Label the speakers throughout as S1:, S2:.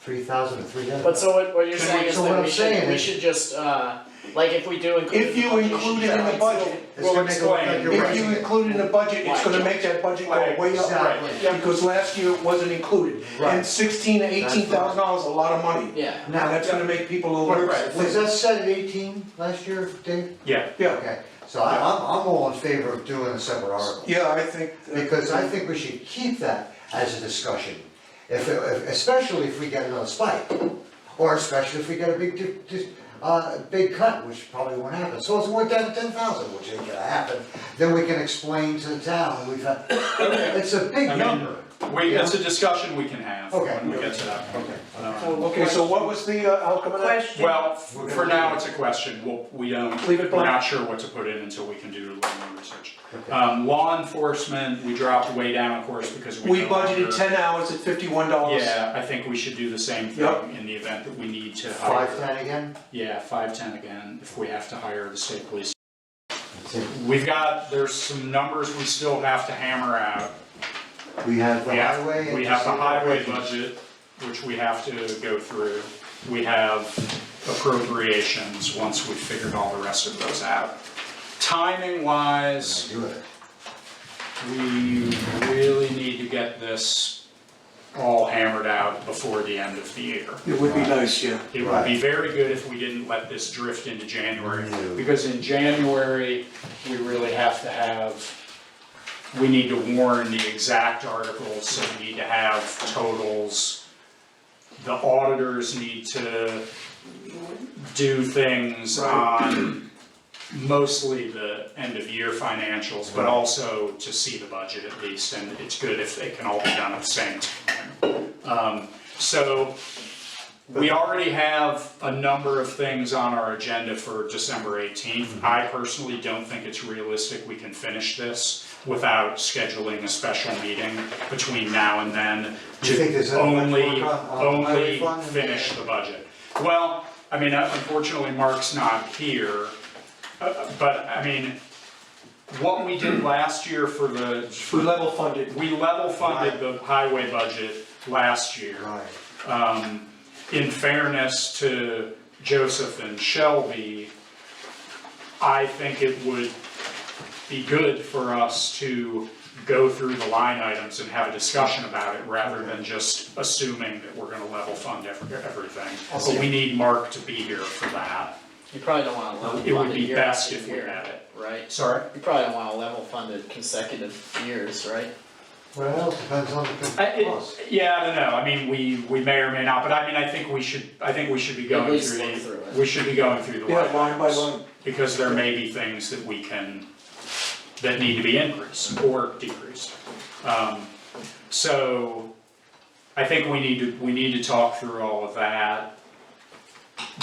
S1: three thousand three hundred.
S2: But so what, what you're
S1: So
S2: saying
S1: what-
S2: is
S1: so what
S2: that
S1: I'm
S2: we
S1: saying
S2: should, we
S1: is-
S2: should just, uh, like if we do include.
S3: If
S2: it in the
S3: you
S2: budget, you should
S3: include it in the
S1: It's gonna
S2: try We'll
S3: budget,
S1: make it look like
S2: explain.
S1: you're
S3: If you
S1: right.
S3: include it in the budget, it's gonna make that budget go way up.
S1: Exactly.
S2: Yeah.
S3: Because last year it wasn't included.
S1: Right.
S3: And sixteen to eighteen thousand dollars is a lot of money.
S2: Yeah,
S3: Now,
S1: Now,
S3: that's gonna make people alert.
S4: Right.
S1: was that set at eighteen last year, Dave?
S4: Yeah,
S3: Yeah,
S1: Okay, so I- I'm, I'm all in favor of doing a separate article,
S3: yeah, I think.
S1: because I think we should keep that as a discussion. If, it- if- especially if we get another spike, or especially if we get a big, di- di- uh, big cut, which probably won't happen. So it's worth down to ten thousand, which ain't gonna happen, then we can explain to the town, we've had, it's a big
S4: I mean,
S1: number.
S4: we, it's a discussion we can have
S1: Okay.
S4: when we get to that. Okay.
S3: Okay, so what was the, uh, outcome of that?
S5: Question.
S4: Well, f- for now, it's a question, we'll, we don't,
S3: Leave it
S4: we're
S3: blank.
S4: not sure what to put in until we can do a little more research. Um, law enforcement, we dropped way down, of course, because we
S3: We
S4: no longer-
S3: budgeted ten hours at fifty-one dollars.
S4: Yeah, I think we should do the same
S3: Yep.
S4: thing in the event that we need to hire.
S1: Five ten again?
S4: Yeah, five ten again, if we have to hire the state police. We've got, there's some numbers we still have to hammer out.
S1: We have the
S4: We have,
S1: highway and.
S4: we have the
S1: disabled
S4: highway
S1: veterans.
S4: budget, which we have to go through. We have appropriations, once we've figured all the rest of those out. Timing wise,
S1: Do it.
S4: we really need to get this all hammered out before the end of the year.
S3: It would be nice, yeah.
S4: It would be very good if we didn't let this drift into January,
S1: No.
S4: because in January, we really have to have, we need to warn the exact articles, so we need to have totals. The auditors need to do things on mostly the end of year financials, but
S1: Right.
S4: also to see the budget at least, and it's good if it can all be done at the same time. Um, so we already have a number of things on our agenda for December eighteenth.
S1: Mm-hmm.
S4: I personally don't think it's realistic we can finish this without scheduling a special meeting between now and then
S1: Do you think there's
S4: to
S1: that much
S4: only,
S1: work on- on the highway
S4: only
S1: fund and-
S4: finish the budget. Well, I mean, unfortunately, Mark's not here, uh, but I mean, what we did last year for the,
S3: We level funded.
S4: we level funded the highway budget last year.
S1: Right.
S4: Um, in fairness to Joseph and Shelby, I think it would be good for us to go through the line items and have a discussion about it rather than just assuming that we're gonna level fund every, everything. But we need Mark to be here for that.
S2: you probably don't wanna level fund it
S4: It would be
S2: year
S4: best
S2: after
S4: if we
S2: year,
S4: had it.
S2: Right,
S4: Sorry?
S2: you probably don't wanna level fund it consecutive years, right?
S1: Well, depends on the.
S4: I, Uh, it-
S1: cost.
S4: yeah, I don't know, I mean, we, we may or may not, but I mean, I think we should, I think we should be going
S2: least
S4: through
S2: look
S4: the,
S2: through it.
S4: we should be going through the
S3: Yeah,
S4: line
S3: line by
S4: items,
S3: line.
S4: Because there may be things that we can, that need to be increased or decreased. Um, so, I think we need to, we need to talk through all of that.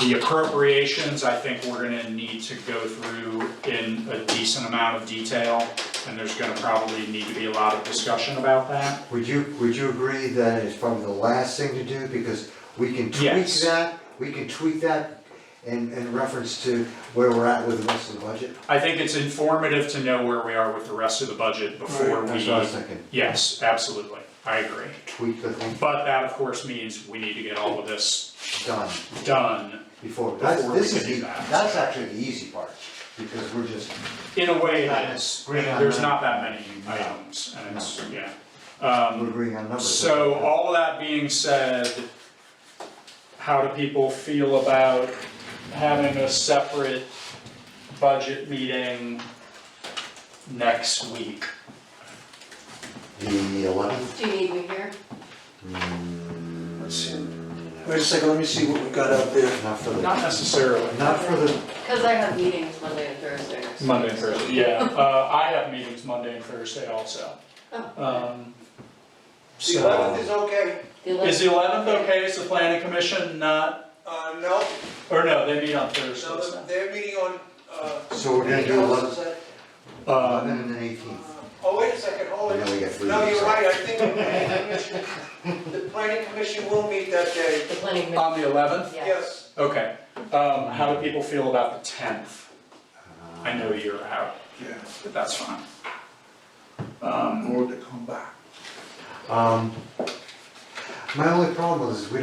S4: The appropriations, I think we're gonna need to go through in a decent amount of detail, and there's gonna probably need to be a lot of discussion about that.
S1: Would you, would you agree that it's probably the last thing to do, because we can tweak
S4: Yes.
S1: that, we can tweak that in, in reference to where we're at with the rest of the budget?
S4: I think it's informative to know where we are with the rest of the budget before
S3: Right,
S4: we.
S1: That's what I was thinking,
S4: Yes, absolutely, I agree.
S1: tweak the thing,
S4: But that, of course, means we need to get all of this
S1: done,
S4: done
S1: before, that's,
S4: Before we
S1: this
S4: can
S1: is,
S4: do
S1: the-
S4: that.
S1: that's actually the easy part, because we're just,
S4: in a way that is,
S1: Right, right.
S4: there's not that many items, and it's, yeah. Um,
S1: we're agreeing on numbers.
S4: So uh, all of that being said, how do people feel about having a separate budget meeting next week?
S1: The eleventh,
S5: Do you need me here?
S1: Hmm.
S3: Let's see. Wait a second, let me see what we got out there.
S1: not for the,
S4: Not necessarily.
S1: not for the,
S5: Because I have meetings Monday and Thursday.
S4: Monday and Thursday, yeah. Uh, I have meetings Monday and Thursday also.
S5: Oh,
S4: Um, So,
S3: is okay.
S5: The
S4: is
S5: eleventh,
S4: the eleventh okay? Is the planning commission not,
S3: Uh, no,
S4: or no, they meet on Thursdays
S3: no, they're meeting on, uh.
S1: so we're gonna do eleven,
S4: now.
S1: eleven
S4: Um,
S1: and then eighteenth,
S3: Oh, wait a second, hold
S1: and then we get three.
S3: No,
S1: weeks
S3: you're
S1: off.
S3: right, I think the planning commission, the planning commission will meet that day,
S5: the planning, commi-
S4: on the eleventh?
S5: yeah.
S3: yes.
S4: Okay. Um, how do people feel about the tenth? I know you're out,
S3: Yeah,
S4: but that's fine. Um,
S3: more to come back.
S1: Um, my only problem is, we